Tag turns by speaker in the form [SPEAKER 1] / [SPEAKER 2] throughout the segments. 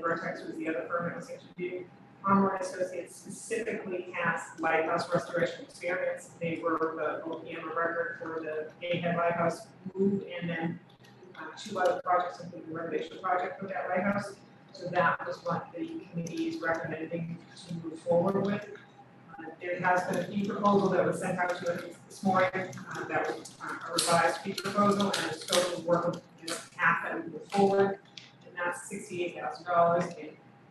[SPEAKER 1] Vertex was the other firm that was interviewed. Palmer Associates specifically has lighthouse restoration experience. They were the OPM of record for the Gayhead Lighthouse move and then uh, two other projects, including the renovation project for that lighthouse. So that was what the committee is recommending to move forward with. Uh, There has been a fee proposal that was sent out to us this morning, uh, that was uh, a revised fee proposal and a scope of work of the path that we move forward. And that's sixty-eight thousand dollars, and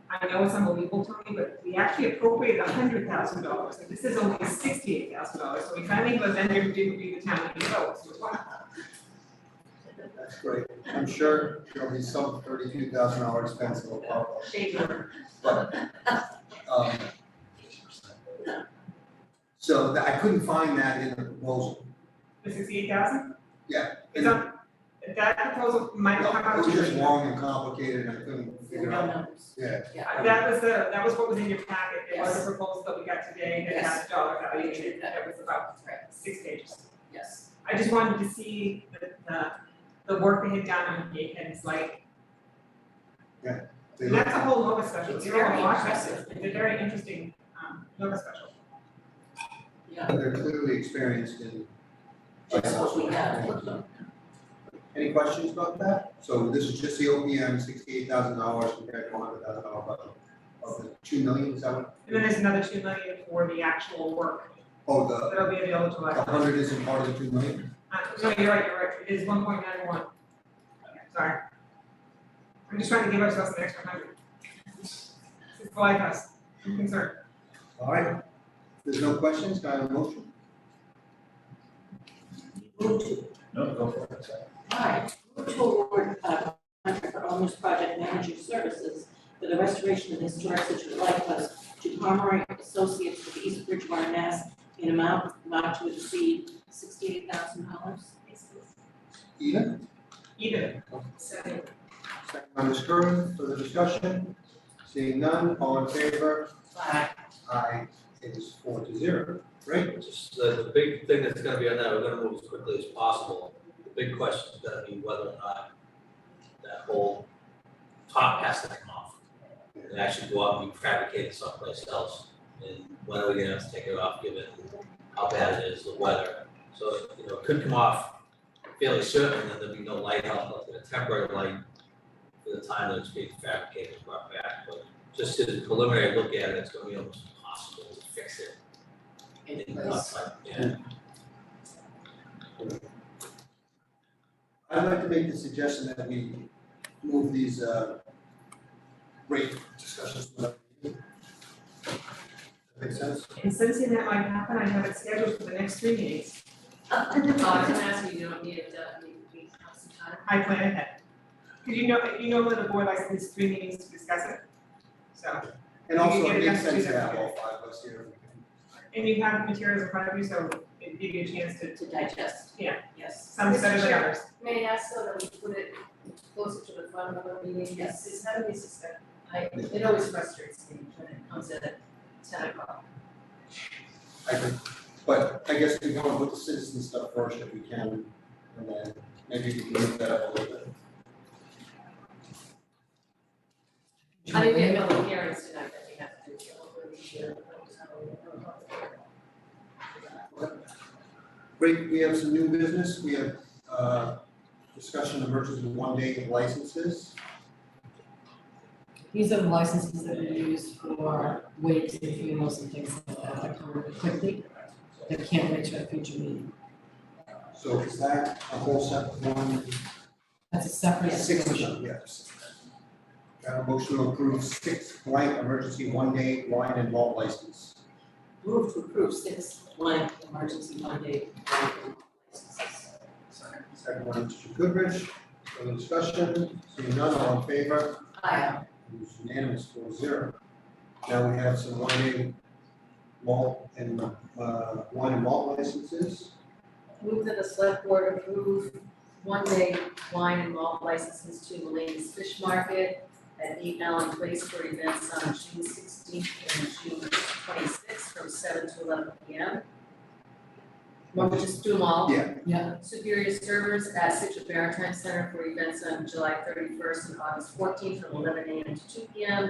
[SPEAKER 1] I know it's unbelievable to me, but we actually appropriated hundred thousand dollars, and this is only sixty-eight thousand dollars, so we finally go then there to do the town and vote, so wow.
[SPEAKER 2] That's great. I'm sure there'll be some thirty-two thousand dollar expense will pop up,
[SPEAKER 1] Shade number.
[SPEAKER 2] but, um. So that- I couldn't find that in the proposal.
[SPEAKER 1] The sixty-eight thousand?
[SPEAKER 2] Yeah.
[SPEAKER 1] It's on, that proposal might come out
[SPEAKER 2] It
[SPEAKER 1] to
[SPEAKER 2] was just long and complicated and I couldn't figure out. Yeah.
[SPEAKER 1] Uh, That was the, that was what was in your packet, it was a proposal that we got today that has dollar value, in it that was about six pages.
[SPEAKER 3] Yes.
[SPEAKER 1] I just wanted to see the, the, the work they had done on Gatehead, it's like,
[SPEAKER 2] they-
[SPEAKER 1] that's a whole Nova special,
[SPEAKER 3] It's
[SPEAKER 1] you don't
[SPEAKER 3] very
[SPEAKER 1] watch
[SPEAKER 3] impressive.
[SPEAKER 1] It's a very interesting, um, Nova special.
[SPEAKER 3] Yeah,
[SPEAKER 2] They're clearly experienced in.
[SPEAKER 3] that's what we have.
[SPEAKER 2] Any questions about that? So this is just the OPM, sixty-eight thousand dollars compared to hundred thousand dollar budget of the two million, is that what?
[SPEAKER 1] And then there's another two million for the actual work
[SPEAKER 2] Oh, the,
[SPEAKER 1] that'll be available to
[SPEAKER 2] the
[SPEAKER 1] us.
[SPEAKER 2] hundred isn't part of the two million?
[SPEAKER 1] Uh, no, you're right, you're right, it is one point nine one. Sorry. I'm just trying to give ourselves an extra hundred. It's the lighthouse, I'm concerned.
[SPEAKER 2] All right. If There's no questions, can I have a motion?
[SPEAKER 3] Move to,
[SPEAKER 4] No, go for it.
[SPEAKER 3] alright, move to award a uh, contract for Almost Project Manager Services for the restoration of the historic Situate Lighthouse to Pomeroy Associates of East Bridgewater, Mass. in amount not to exceed sixty-eight thousand dollars.
[SPEAKER 2] Eden,
[SPEAKER 1] Even.
[SPEAKER 2] second by Ms. Curran, further discussion? Seeing none, all in favor? Aye, it is four to zero, right?
[SPEAKER 5] Just uh, the, the big thing that's gonna be on that, we're gonna move as quickly as possible. The big question is gonna be whether or not that whole top has to come off. And actually go out and fabricate it someplace else. And when are we gonna have to take it off, given how bad it is, the weather? So, you know, it could come off fairly certain, and there'll be no light out, like a temporary light for the time that it's being fabricated and brought back. But just as a preliminary look at it, it's gonna be almost impossible to fix it
[SPEAKER 3] It
[SPEAKER 5] in
[SPEAKER 3] was-
[SPEAKER 5] yeah.
[SPEAKER 2] I'd like to make the suggestion that we move these, uh, rate discussions. to another meeting. Make sense?
[SPEAKER 1] And sensing that might happen, I have it scheduled for the next three meetings.
[SPEAKER 6] Oh, I was gonna ask you, you don't need it, uh, we, we have some time.
[SPEAKER 1] I plan ahead. Because you know, you know that the board likes these three meetings to discuss it. So,
[SPEAKER 2] And also,
[SPEAKER 1] We can
[SPEAKER 2] it
[SPEAKER 1] get it
[SPEAKER 2] makes
[SPEAKER 1] done
[SPEAKER 2] sense to
[SPEAKER 1] Tuesday.
[SPEAKER 2] have all five of us here.
[SPEAKER 1] and you have materials in front of you, so it'd give you a chance to,
[SPEAKER 3] To digest.
[SPEAKER 1] Yeah.
[SPEAKER 3] Yes.
[SPEAKER 1] some set of
[SPEAKER 6] Mr. Chair.
[SPEAKER 1] others.
[SPEAKER 6] May I ask so that we put it closer to the front of the meeting, yes, it's not a suspect, I, it always frustrates me when it comes at ten o'clock.
[SPEAKER 2] I think, but I guess we want to put the citizen stuff first if we can, and then maybe we can move that up a little bit.
[SPEAKER 6] I didn't get no hearings tonight that we have to do, so hopefully we should,
[SPEAKER 2] Great, we have some new business, we have, uh, discussion of merchants with one day of licenses.
[SPEAKER 7] These are the licenses that are used for wakes and funerals and things like that, that come really quickly, that can't wait to a future meeting.
[SPEAKER 2] So is that a whole separate one?
[SPEAKER 7] That's a separate.
[SPEAKER 2] Six of them, yes. Got a motion to approve six blank emergency one day wine and malt license.
[SPEAKER 3] Move to approve six blank emergency Monday blank licenses.
[SPEAKER 2] Second one, Mr. Goodrich, further discussion, seeing none, all in favor?
[SPEAKER 3] Aye.
[SPEAKER 2] It was unanimous, four zero. Now we have some wine and malt and, uh, wine and malt licenses.
[SPEAKER 6] Move that the select board approve one day wine and malt licenses to Mulaney's Fish Market at Eight Allen Place for events on June sixteenth and June twenty-sixth from seven to eleven P M. Well, we'll just do them all.
[SPEAKER 2] Yeah.
[SPEAKER 7] Yeah.
[SPEAKER 6] Superior Servers at Situate Maritime Center for events on July thirty-first and August fourteenth from eleven AM to two PM.